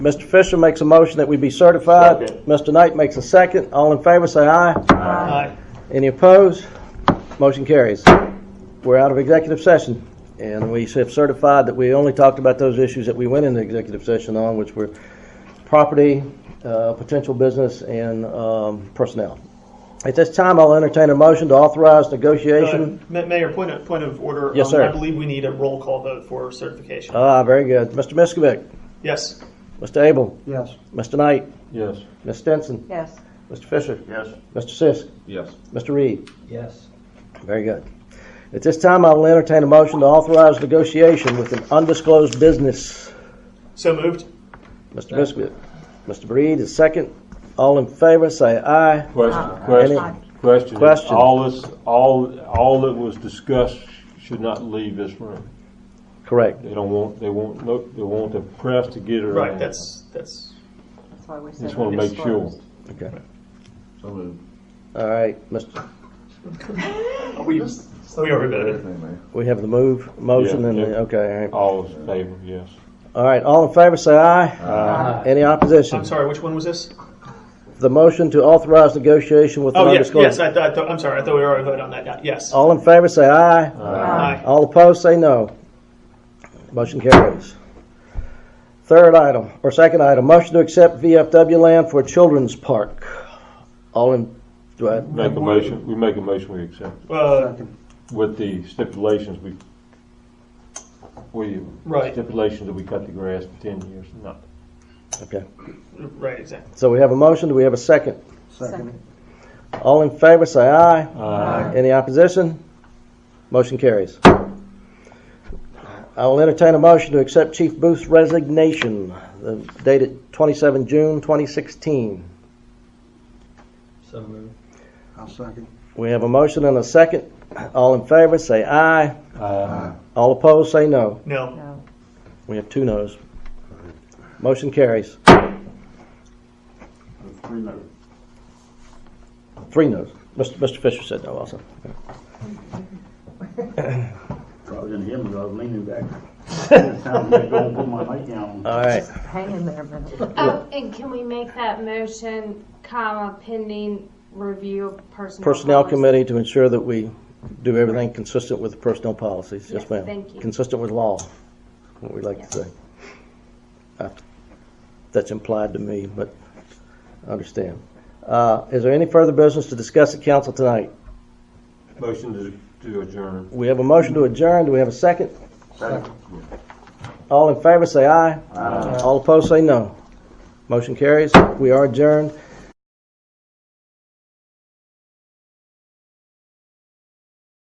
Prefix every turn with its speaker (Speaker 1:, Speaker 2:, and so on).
Speaker 1: Mr. Fisher makes a motion that we be certified.
Speaker 2: Second.
Speaker 1: Mr. Knight makes a second. All in favor, say aye.
Speaker 2: Aye.
Speaker 1: Any opposed? Motion carries. We're out of executive session, and we have certified that we only talked about those issues that we went into executive session on, which were property, uh, potential business, and um, personnel. At this time, I'll entertain a motion to authorize
Speaker 2: Uh,
Speaker 1: negotiation.
Speaker 2: Ma- Mayor, point of, point of order.
Speaker 1: Yes,
Speaker 2: Um,
Speaker 1: sir.
Speaker 2: I believe we need a roll call vote for certification.
Speaker 1: Ah, very good. Mr. Miskovic,
Speaker 2: Yes.
Speaker 1: Mr. Abel,
Speaker 3: Yes.
Speaker 1: Mr. Knight,
Speaker 4: Yes.
Speaker 1: Ms. Stinson,
Speaker 5: Yes.
Speaker 1: Mr. Fisher,
Speaker 4: Yes.
Speaker 1: Mr. Sisk,
Speaker 4: Yes.
Speaker 1: Mr. Reed.
Speaker 3: Yes.
Speaker 1: Very good. At this time, I will entertain a motion to authorize negotiation with an undisclosed business.
Speaker 2: So moved?
Speaker 1: Mr. Biscuit, Mr. Breed is second. All in favor, say aye.
Speaker 4: Question,
Speaker 1: Aye.
Speaker 4: question, question.
Speaker 1: Question.
Speaker 4: All this, all, all that was discussed should not leave this room.
Speaker 1: Correct.
Speaker 4: They don't want, they want, look, they want the press to get around.
Speaker 2: Right, that's, that's,
Speaker 5: That's why we said.
Speaker 4: Just want to make sure.
Speaker 5: undisclosed.
Speaker 1: Okay. All right, Mr.,
Speaker 2: we, we are voted.
Speaker 1: we have the move, motion,
Speaker 4: Yeah,
Speaker 1: and, the
Speaker 4: yeah.
Speaker 1: okay, all right.
Speaker 4: All in favor, yes.
Speaker 1: All right, all in favor, say aye. Any opposition?
Speaker 2: I'm sorry, which one was this?
Speaker 1: The motion to authorize negotiation with an
Speaker 2: Oh, yes, yes,
Speaker 1: undisclosed.
Speaker 2: I thought, I thought- I'm sorry, I thought we already voted on that, Yeah, yes.
Speaker 1: All in favor, say aye.
Speaker 2: Aye.
Speaker 1: All opposed, say no. Motion carries. Third item, or second item, motion to accept VFW land for a children's park. All in, do I,
Speaker 4: Make a motion, we make a motion, we accept it.
Speaker 2: Uh,
Speaker 4: with the stipulations we, we.
Speaker 2: Right.
Speaker 4: Stipulations that we cut the grass for ten years, not.
Speaker 1: okay.
Speaker 2: right, exactly.
Speaker 1: So we have a motion, do we have a second?
Speaker 3: Second.
Speaker 1: All in favor, say aye.
Speaker 4: Aye.
Speaker 1: Any opposition? Motion carries. I will entertain a motion to accept Chief Booth's resignation uh, dated 27 June 2016.
Speaker 3: So moved. I'll second.
Speaker 1: We have a motion and a second. All in favor, say aye.
Speaker 4: Aye.
Speaker 1: All opposed, say no.
Speaker 2: No,
Speaker 5: No.
Speaker 1: We have two noes. Motion carries. Three noes. Mr. Mr. Fisher said no also.
Speaker 6: Probably didn't hear me, I was leaning back. This time I'm gonna put my mic down.
Speaker 1: All right.
Speaker 5: Hang in there a minute.
Speaker 7: Oh, and can we make that motion, comma, pending review of personnel?
Speaker 1: Personnel
Speaker 7: policy?
Speaker 1: Committee to ensure that we do everything consistent with the personnel policies. Yes,
Speaker 7: Yes,
Speaker 1: ma'am.
Speaker 7: thank you.
Speaker 1: Consistent with law, what we like to say. Uh, That's implied to me, but I understand. Uh, Is there any further business to discuss at council tonight?
Speaker 4: Motion to, to adjourn.
Speaker 1: We have a motion to adjourn. Do we have a second? All in favor, say aye. All opposed, say no. Motion carries. We are adjourned.